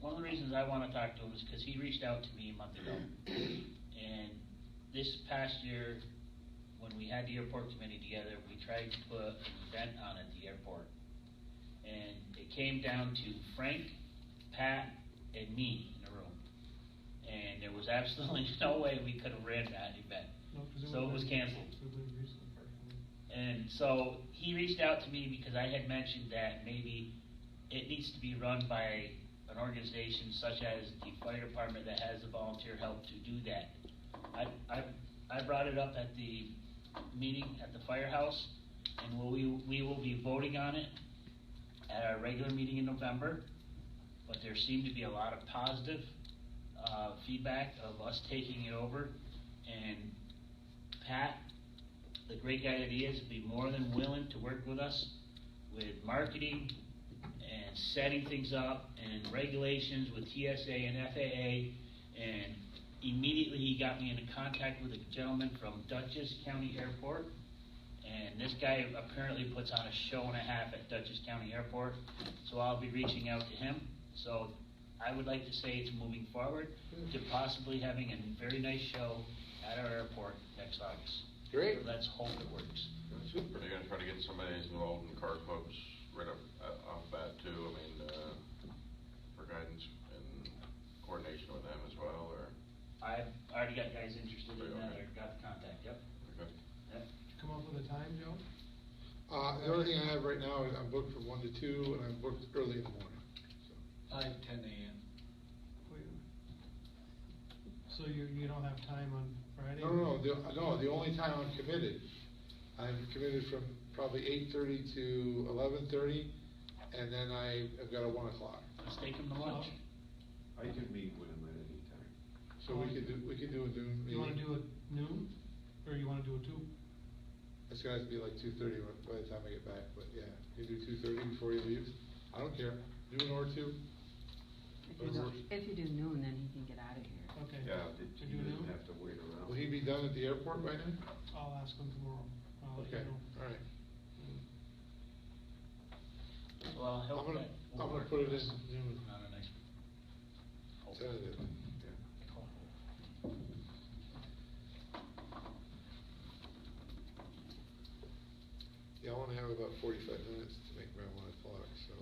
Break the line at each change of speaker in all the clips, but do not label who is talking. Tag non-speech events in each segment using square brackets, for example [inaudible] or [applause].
one of the reasons I wanna talk to him is because he reached out to me a month ago. And this past year, when we had the airport committee together, we tried to put an event on at the airport. And it came down to Frank, Pat, and me in a room. And there was [laughs] absolutely no way we could have ran that event.
No, 'cause
So it was
like-
canceled.
It was like recently, probably.
And so he reached out to me because I had mentioned that maybe it needs to be run by an organization such as the fire department that has the volunteer help to do that. I, I, I brought it up at the meeting at the firehouse, and we'll- we, we will be voting on it at our regular meeting in November. But there seemed to be a lot of positive, uh, feedback of us taking it over, and Pat the great guy that he is, be more than willing to work with us with marketing and setting things up and regulations with TSA and FAA. And immediately he got me into contact with a gentleman from Dutchess County Airport. And this guy apparently puts on a show and a half at Dutchess County Airport, so I'll be reaching out to him. So I would like to say it's moving forward to possibly having a very nice show at our airport next August.
Great.
Let's hope it works.
Super.
Are they gonna try to get somebody who's involved in car clubs right up, uh, off bat too, I mean, uh, for guidance and coordination with them as well, or?
I've already got guys interested in that,
Okay.
I got the contact, yep,
Okay.
yep.
Did you come up with a time, Joe?
Uh, the only thing I have right now is I'm booked from one to two, and I'm booked early in the morning.
Five, ten AM.
Wait. So you, you don't have time on Friday?
No, no, no, the, no, the only time I'm committed, I'm committed from probably eight-thirty to eleven-thirty, and then I have got a one o'clock.
Let's take them to lunch.
I can meet with him at any time.
So we could do, we could do a noon
You
meeting.
wanna do it noon, or you wanna do it two?
It's gonna have to be like two-thirty by the time I get back, but yeah, you do two-thirty before he leaves, I don't care, noon or two.
If you
Whatever
do,
works.
if you do noon, then he can get out of here.
Okay.
Yeah, that
To
he
do
doesn't
noon?
have to wait around.
Will he be done at the airport by then?
I'll ask him tomorrow. I'll let you
Okay,
know.
all right.
Hmm.
Well, I'll
I'm
help
gonna-
that.
I'm gonna put it in noon.
Not a nice. hope.
Tentative.
Yeah.
Hope.
Yeah, I wanna have about forty-five minutes to make my one o'clock, so,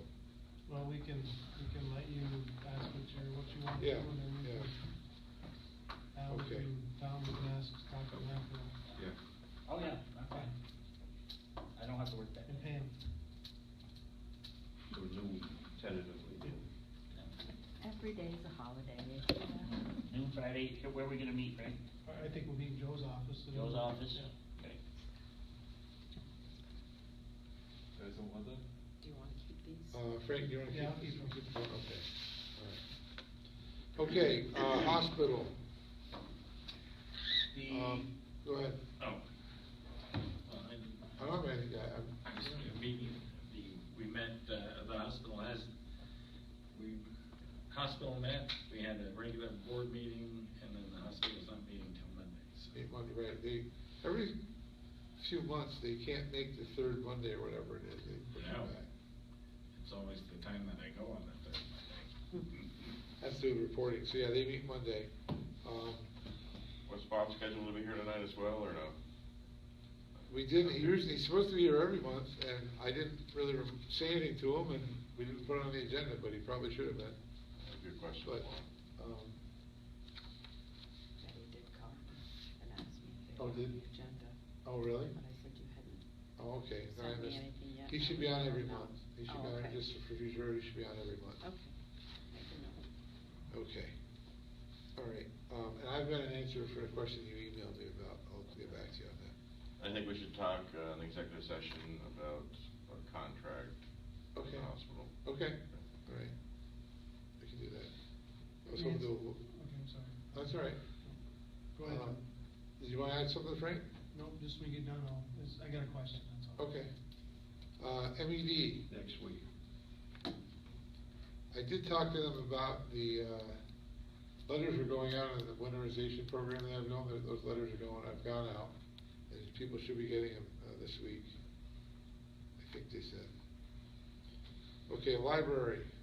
Well, we can, we can let you ask what you, what you want to do,
Yeah,
and then we
yeah.
can. Al
Okay.
can, Tom can ask, talk to him after,
Yeah.
Oh, yeah, I'm fine. I don't have to work that.
and
day.
Pam.
So noon, tentatively noon.
Every day's a holiday.
Noon Friday, here- where are we gonna meet, right?
I- I think we'll be in Joe's office. so-
Joe's office?
Yeah.
Okay.
There's no other?
Do you wanna keep these?
uh, Frank, you wanna keep?
Yeah, I'll keep them.
Oh, Okay, all right. Okay, uh, hospital, um, go ahead,
Oh.
I don't have anything, I, I'm.
Uh, I was in a meeting, the, we met, uh, the hospital has, we, hospital met, we had a regular board meeting, and then the hospital's not meeting till Monday, so.
Eight Monday, right, they, every few months, they can't make the third Monday or whatever it is, they push it
Yeah.
back.
It's always the time that I go on that third Monday.
That's through the reporting, so yeah, they meet Monday. Um,
Was Bob scheduled to be here tonight as well, or no?
we didn't, he usually, he's supposed to be here every month, and I didn't really rem- say anything to him, and we didn't put it on the agenda, but he probably should have been.
Good question.
But, um,
Betty did call and ask me if they
Oh,
were on the
did-
agenda.
oh, really?
But I said you hadn't.
Oh, okay, then I
Sent me
missed-
anything yet,
He
and
should
I
be on
don't
every
know.
month, he should
Oh,
be on,
okay.
just for future, he should be on every month.
Okay. Make a note.
Okay. All right, um, and I've got an answer for a question you emailed me about, I'll get back to you on that.
I think we should talk, uh, in executive session about a contract with
Okay.
the hospital.
Okay, all right. We can do that. I was hoping
Yes.
to,
Okay, I'm sorry. Uh,
that's all right.
Go ahead.
Um, Did you want to add something, Frank?
Nope, just when we get done, I'll, is- I got a question, that's all.
Okay. Uh, MED,
Next week.
I did talk to them about the, uh, letters are going out in the winterization program, and I've known that those letters are going, I've gone out, and people should be getting them, uh, this week. I think they said. Okay, library.